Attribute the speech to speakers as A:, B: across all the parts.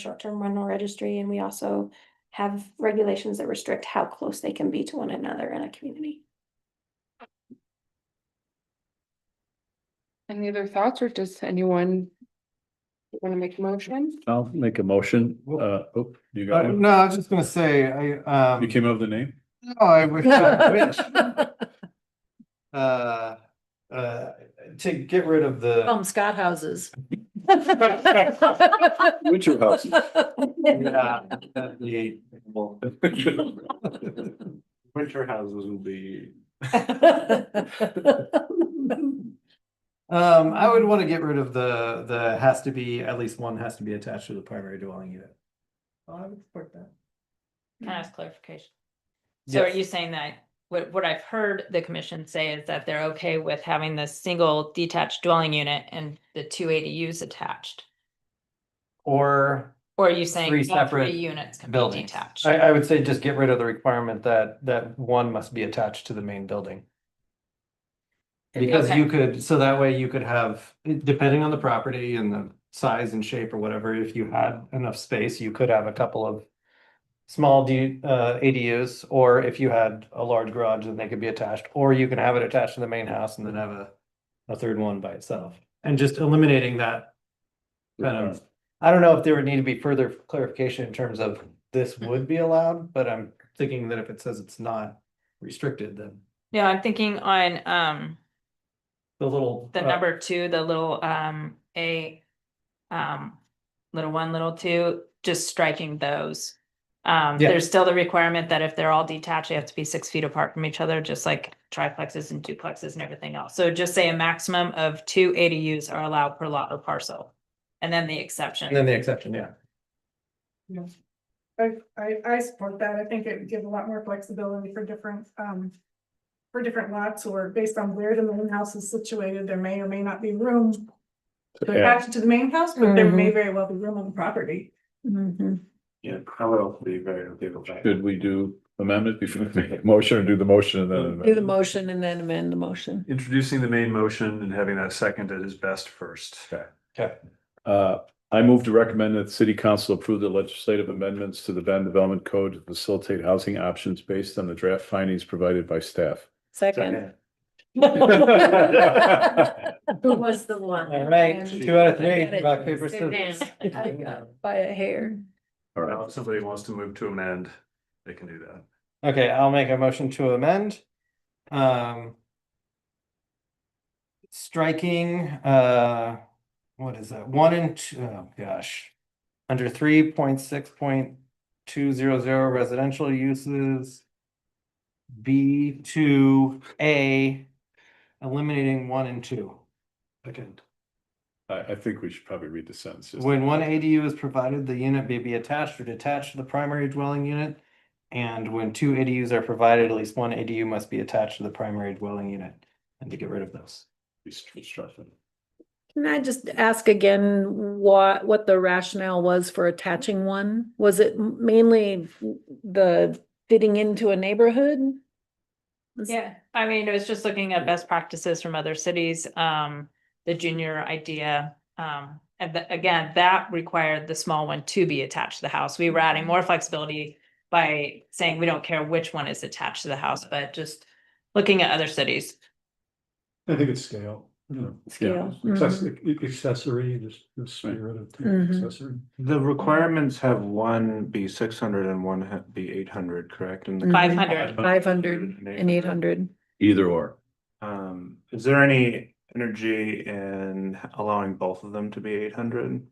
A: short-term rental registry, and we also have regulations that restrict how close they can be to one another in a community.
B: Any other thoughts or does anyone want to make a motion?
C: I'll make a motion.
D: Well-
C: Uh, oh, you
D: Uh,
C: got one?
D: no, I was just gonna say, I, um,
C: You came up with the name?
D: no, I wish, I wish. Uh, uh, to get rid of the,
E: Call 'em Scott houses.
C: Winter House.
D: yeah, that'd be- well, winter houses will be. Um, I would wanna get rid of the, the has to be, at least one has to be attached to the primary dwelling unit. Oh, I would support that.
F: Can I ask clarification? So are you saying that, what, what I've heard the commission say is that they're okay with having the single detached dwelling unit and the two ADUs attached?
D: Or
F: Or are you saying
D: Three
F: all
D: separate
F: three units can be
D: buildings.
F: detached?
D: I, I would say just get rid of the requirement that, that one must be attached to the main building. Because you could, so that way you could have, depending on the property and the size and shape or whatever, if you had enough space, you could have a couple of small D, uh, ADUs, or if you had a large garage, then they could be attached, or you can have it attached to the main house and then have a, a third one by itself. And just eliminating that kind of I don't know if there would need to be further clarification in terms of this would be allowed, but I'm thinking that if it says it's not restricted, then
F: No, I'm thinking on, um,
D: the little.
F: the
D: uh,
F: number two, the little, um, A, um, little one, little two, just striking those. Um,
D: Yeah.
F: there's still the requirement that if they're all detached, they have to be six feet apart from each other, just like triplexes and duplexes and everything else. So just say a maximum of two ADUs are allowed per lot or parcel. And then the exception.
D: And then the exception, yeah.
G: I, I, I support that. I think it would give a lot more flexibility for different, um. For different lots or based on where the main house is situated, there may or may not be room to
C: Yeah,
G: attach to the main house, but there may very well be room on the property.
D: Yeah, I would also be very okay with
C: Should we do amendment before we make a motion or do the motion and then?
E: Do the
C: amendment?
E: motion and then amend the motion.
H: introducing the main motion and having that seconded is best first.
C: Uh, I move to recommend that the city council approve the legislative amendments to the Van Development Code to facilitate housing options based on the draft findings provided by staff.
E: Second.
C: By
E: Who was the one?
D: All right, two out of three,
E: I got it.
D: rock, paper,
E: Sit
D: scissors.
E: down. I got
D: uh,
E: it By a hair.
H: Now, if somebody wants to move to amend, they can do that.
D: Okay, I'll make a motion to amend. Um. Striking, uh, what is that? One and two, oh gosh. Under three point six point two zero zero residential uses. B two A, eliminating one and two.
H: Second.
C: I, I think we should probably read the sentences.
D: When one ADU is provided, the unit may be attached or detached to the primary dwelling unit. And when two ADUs are provided, at least one ADU must be attached to the primary dwelling unit and to get rid of those.
E: Can I just ask again what, what the rationale was for attaching one? Was it mainly the fitting into a neighborhood? Was-
F: Yeah, I mean, it was just looking at best practices from other cities, um, the junior idea. Um, and tha- again, that required the small one to be attached to the house. We were adding more flexibility by saying we don't care which one is attached to the house, but just looking at other cities.
I: I think it's scale.
E: Scale.
B: mm-hmm.
I: Accessory, e-, accessory, just the spirit of
E: Mhm.
I: accessory.
J: The requirements have one be six hundred and one ha- be eight hundred, correct? And the-
F: Five hundred.
E: Five hundred and eight hundred.
C: Either or.
J: Um, is there any energy in allowing both of them to be eight hundred?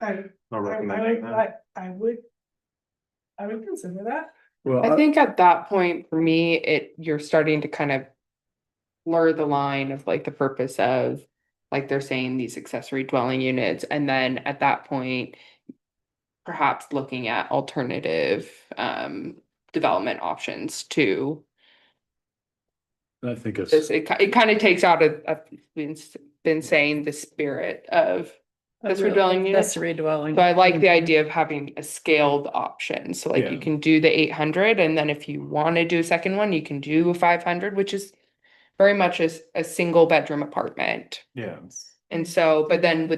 G: I,
J: Or
G: I,
J: recommending
G: I,
J: that?
G: I- I would. I would consider that.
B: I
C: Well,
B: think at that point, for me, it, you're starting to kind of blur the line of like the purpose of, like they're saying these accessory dwelling units, and then at that point, perhaps looking at alternative um development options too.
C: I think it's.
B: It's- It, ki- it kind of takes out of, of- been, s- been saying the spirit of That's for dwelling units.
E: Accessory dwelling.
B: So I like the idea of having a scaled option, so like
C: Yeah.
B: you can do the eight hundred, and then if you wanna do a second one, you can do a five hundred, which is. Very much as a single bedroom apartment,
J: Yeah.
B: and so, but then with